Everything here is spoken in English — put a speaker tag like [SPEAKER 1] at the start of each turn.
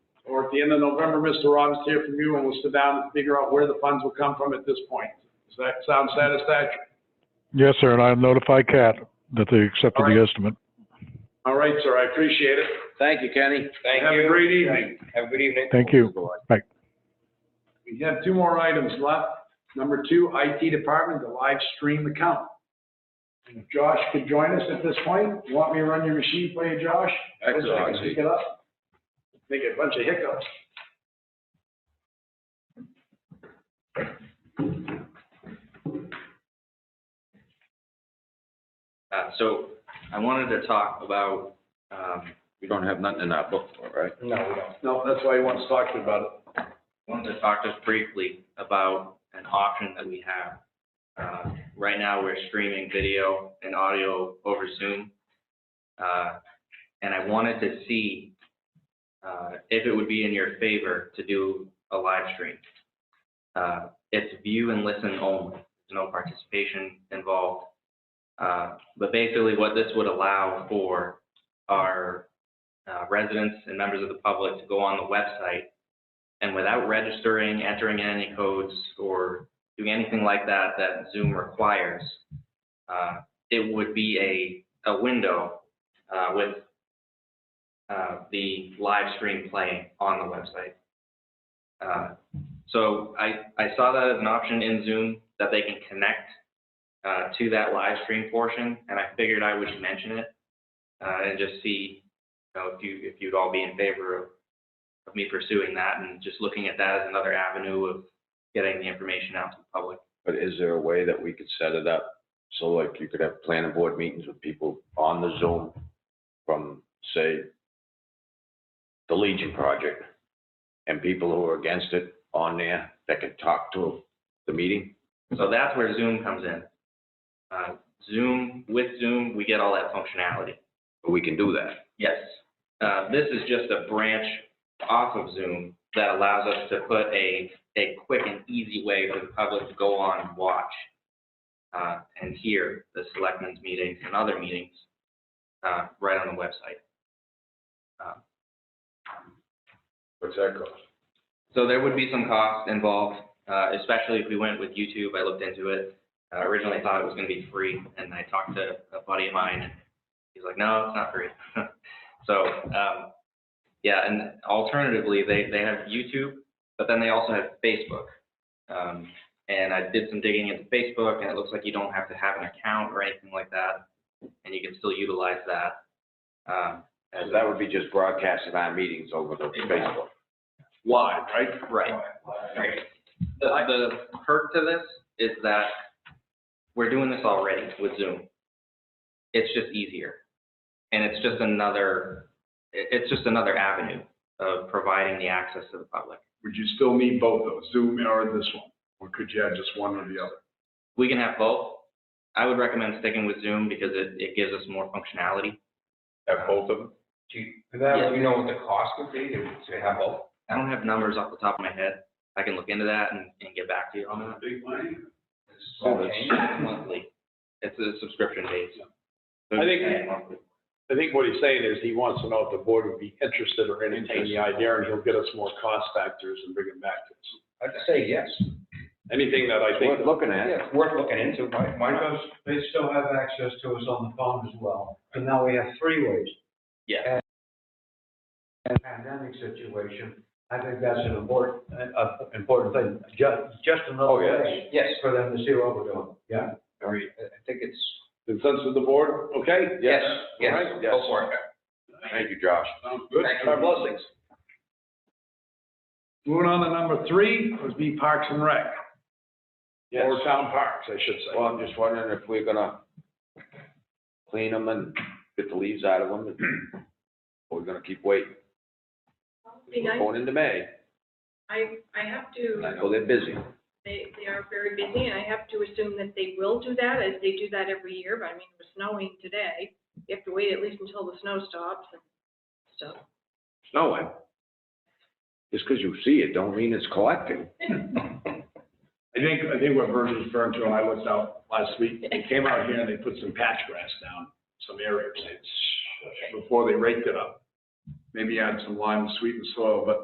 [SPEAKER 1] at the end of November, Mr. Robbins, to hear from you, and we'll sit down and figure out where the funds will come from at this point. Does that sound satisfactory?
[SPEAKER 2] Yes, sir, and I notified Cat that they accepted the estimate.
[SPEAKER 1] All right, sir, I appreciate it.
[SPEAKER 3] Thank you, Kenny.
[SPEAKER 4] Thank you.
[SPEAKER 1] Have a great evening.
[SPEAKER 4] Have a good evening.
[SPEAKER 2] Thank you. Bye.
[SPEAKER 1] We have two more items left. Number two, IT department, the live stream account. If Josh could join us at this point. You want me to run your machine for you, Josh?
[SPEAKER 3] That's
[SPEAKER 1] Listen, I can
[SPEAKER 3] awesome.
[SPEAKER 1] pick it up. Make a bunch of hiccups.
[SPEAKER 5] Uh, so I wanted to talk about, um,
[SPEAKER 3] We don't have nothing in our book for it, right?
[SPEAKER 4] No, we don't.
[SPEAKER 1] No, that's why he wants to talk to you about it.
[SPEAKER 5] wanted to talk just briefly about an option that we have. Uh, right now, we're streaming video and audio over Zoom. Uh, and I wanted to see, uh, if it would be in your favor to do a live stream. Uh, it's view and listen only, There's no participation involved. Uh, but basically what this would allow for are, uh, residents and members of the public to go on the website and without registering, entering in any codes, or doing anything like that that Zoom requires, uh, it would be a, a window uh, with uh, the live stream playing on the website. Uh, So I, I saw that as an option in Zoom, that they can connect uh, to that live stream portion, and I figured I would mention it uh, and just see, you know, if you, if you'd all be in favor of of me pursuing that and just looking at that as another avenue of getting the information out to the public.
[SPEAKER 3] But is there a way that we could set it up? So like you could have planning board meetings with people on the Zoom from, say, the Legion Project, and people who are against it on there that could talk to the meeting?
[SPEAKER 5] So that's where Zoom comes in. Uh, Zoom, with Zoom, we get all that functionality.
[SPEAKER 3] We can do that.
[SPEAKER 5] Yes. Uh, This is just a branch off of Zoom that allows us to put a, a quick and easy way for the public to go on and watch uh, and hear the selectmen's meetings and other meetings uh, right on the website.
[SPEAKER 3] What's that cost?
[SPEAKER 5] So there would be some cost involved, uh, especially if we went with YouTube. I looked into it. Uh, Originally, I thought it was going to be free, and I talked to a buddy of mine, and he's like, no, it's not free. So, um, yeah, and alternatively, they, they have YouTube, but then they also have Facebook. Um, And I did some digging into Facebook, and it looks like you don't have to have an account or anything like that, and you can still utilize that. Um, as
[SPEAKER 3] That would be just broadcasting our meetings over the Facebook.
[SPEAKER 1] Live, right?
[SPEAKER 5] Right. Right. The, the perk to this is that we're doing this already with Zoom. It's just easier. And it's just another, it- it's just another avenue of providing the access to the public.
[SPEAKER 1] Would you still need both though, Zoom or this one? Or could you have just one or the other?
[SPEAKER 5] We can have both. I would recommend sticking with Zoom because it, it gives us more functionality.
[SPEAKER 3] Have both of them?
[SPEAKER 4] Do you, for that, do you know what the cost would be to to have both?
[SPEAKER 5] I don't have numbers off the top of my head. I can look into that and, and get back to you on that.
[SPEAKER 1] Big money.
[SPEAKER 4] Okay.
[SPEAKER 5] Monthly. It's a subscription base.
[SPEAKER 1] I think- I think what he's saying is he wants to know if the board would be interested or entertain the idea, and he'll get us more cost factors and bring them back to us.
[SPEAKER 4] I'd say yes.
[SPEAKER 1] Anything that I
[SPEAKER 3] It's
[SPEAKER 1] think,
[SPEAKER 3] worth looking
[SPEAKER 4] Yeah,
[SPEAKER 3] at.
[SPEAKER 4] it's worth looking into. Why, why not?
[SPEAKER 6] Because they still have access to us on the phone as well, so now we have three ways.
[SPEAKER 5] Yeah.
[SPEAKER 6] In a pandemic situation, I think that's an important, an uh, important thing, just, just another
[SPEAKER 3] Oh, yes.
[SPEAKER 6] way
[SPEAKER 4] Yes,
[SPEAKER 6] for them to see what we're doing, yeah?
[SPEAKER 4] I I think it's,
[SPEAKER 1] consensus of the board, okay?
[SPEAKER 4] yes, yes,
[SPEAKER 3] Alright, yes.
[SPEAKER 4] go for it.
[SPEAKER 3] Thank you, Josh.
[SPEAKER 1] Sounds good.
[SPEAKER 4] Thank you.
[SPEAKER 1] Our blessings. Moving on to number three, would be Parks and Rec.
[SPEAKER 3] Yes.
[SPEAKER 1] Or town parks, I should
[SPEAKER 3] Well,
[SPEAKER 1] say.
[SPEAKER 3] I'm just wondering if we're gonna clean them and get the leaves out of them, and- or we're gonna keep waiting.
[SPEAKER 7] Be
[SPEAKER 3] We're
[SPEAKER 7] nice.
[SPEAKER 3] Going into May,
[SPEAKER 7] I, I have
[SPEAKER 3] and I
[SPEAKER 7] to,
[SPEAKER 3] know they're busy.
[SPEAKER 7] they, they are very busy, and I have to assume that they will do that, as they do that every year, but I mean, it was snowing today. You have to wait at least until the snow stops and stuff.
[SPEAKER 3] Snowing. Just 'cause you see it, don't mean it's collecting.
[SPEAKER 1] I think, I think what Vern's referring to, and I looked out last week, they came out here and they put some patch grass down, some areas, it's- before they raked it up. Maybe add some lime to sweeten soil, but